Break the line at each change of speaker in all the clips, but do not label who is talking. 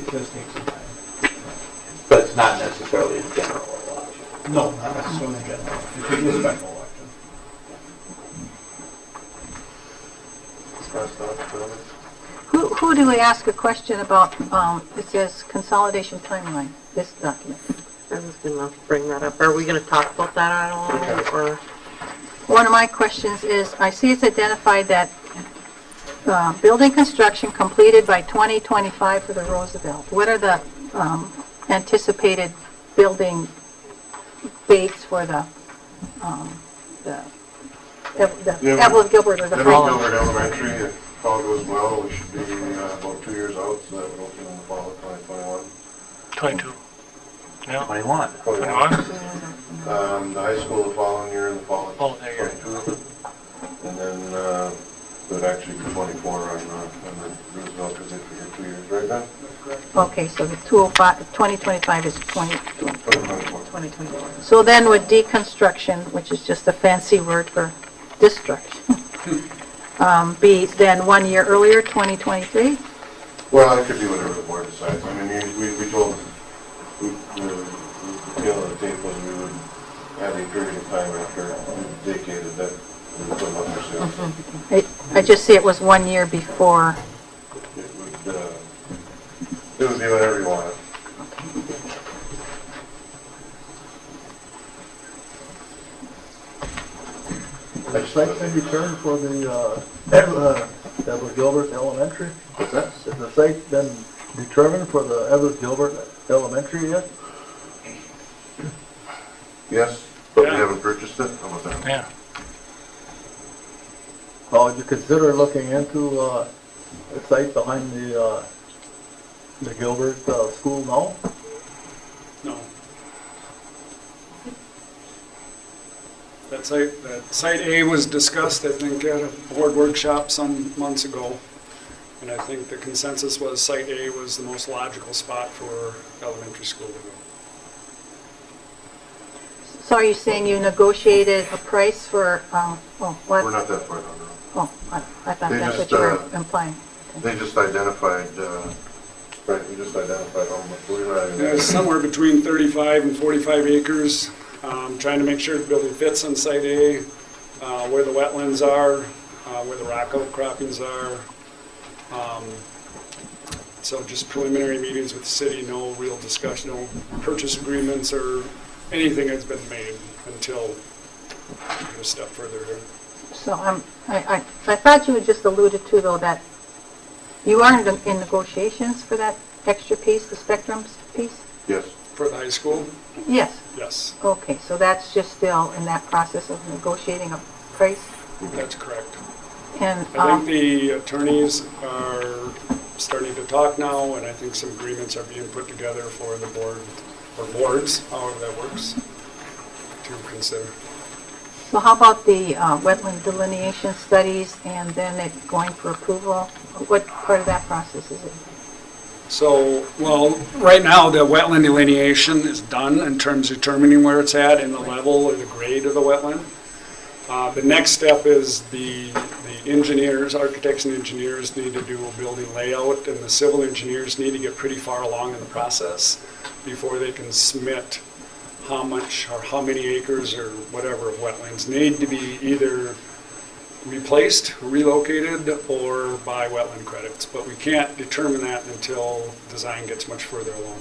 it does take some time.
But it's not necessarily a general election.
No, not necessarily a general, it could be a special election.
Who, who do we ask a question about, um, it says consolidation timeline, this document?
I was gonna bring that up. Are we gonna talk about that at all, or?
One of my questions is, I see it's identified that, uh, building construction completed by 2025 for the Roosevelt. What are the, um, anticipated building dates for the, um, the, Ev- the
Yeah.
Evelyn Gilbert or the
Then we
Frollo?
go to elementary, if all goes well, we should be uh, about two years out, so that would open in the fall of 2021.
22. Yeah,
21.
21?
Um, the high school the following year in the fall of
Oh, there you go.
22. And then, uh, it would actually be 24 on, uh, on the Roosevelt, because they figure two years right now.
Okay, so the 205, 2025 is 20,
2024.
2021. So then with deconstruction, which is just a fancy word for destruction, um, be then one year earlier, 2023?
Well, it could be whatever the board decides. I mean, you- we, we told, we, the, the deal of the tape was we would have a period of time after we vacated that we would put them up for sale.
I- I just see it was one year before.
It would, uh, it would be whatever you wanted.
Site plan return for the, uh, Ev- uh, Edward Gilbert Elementary? Is that, is the site been determined for the Edward Gilbert Elementary yet?
Yes, but we
Yeah.
haven't purchased it, how about that?
Yeah,
Or would you consider looking into, uh, the site behind the, uh, the Gilbert, uh, school now?
No. That site, that site A was discussed, I think, at a board workshop some months ago. And I think the consensus was site A was the most logical spot for elementary school to go.
So are you saying you negotiated a price for, um, oh, what?
We're not that far down the road.
Oh, I I thought
They
that's what
just,
you were
uh,
implying.
They just identified, uh, right, we just identified how much we're not even-
It was somewhere between 35 and 45 acres, um, trying to make sure the building fits on site A, uh, where the wetlands are, uh, where the rock outcroppings are. Um, So just preliminary meetings with the city, no real discussion, no purchase agreements or anything that's been made until a step further here.
So I'm, I, I, I thought you had just alluded to though that you are in in negotiations for that extra piece, the spectrums piece?
Yes,
For the high school,
Yes.
yes,
Okay, so that's just still in that process of negotiating a price?
that's correct.
And,
I think
um,
the attorneys are starting to talk now, and I think some agreements are being put together for the board, or boards, however that works, to consider.
so how about the uh, wetland delineation studies and then it going for approval? What part of that process is it?
So, well, right now, the wetland delineation is done in terms of determining where it's at and the level or the grade of the wetland. Uh, The next step is the the engineers, architects and engineers need to do a building layout, and the civil engineers need to get pretty far along in the process before they can submit how much or how many acres or whatever of wetlands need to be either replaced, relocated, or by wetland credits. But we can't determine that until design gets much further along.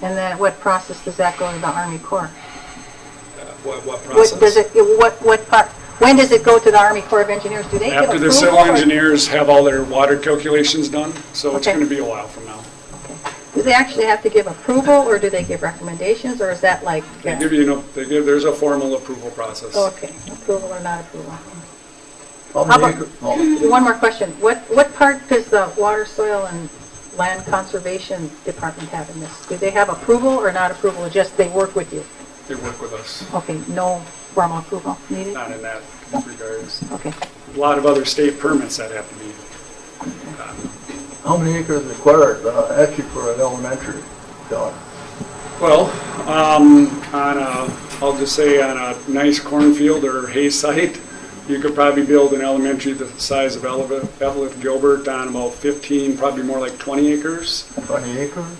And then what process does that go to the Army Corps?
Uh, What, what
What
process?
does it, what, what part, when does it go to the Army Corps of Engineers? Do they give
After
approval?
the civil
or-
engineers have all their water calculations done, so it's
Okay.
going to be a while from now.
Do they actually have to give approval or do they give recommendations or is that like?
They
uh,
give you, no- they give, there's a formal approval process.
Okay, approval or not approval?
How
How
many
about-
acre- oh,
One more question. What, what part does the Water, Soil, and Land Conservation Department have in this? Do they have approval or not approval, or just they work with you?
They work with us,
Okay, no formal approval needed?
not in that regards.
Okay.
A lot of other state permits that have to be,
How many acres required, uh, actually for an elementary, John?
well, um, on a, I'll just say on a nice cornfield or hay site, you could probably build an elementary the size of Evelyn Evelyn Gilbert on about 15, probably more like 20 acres.
Twenty acres?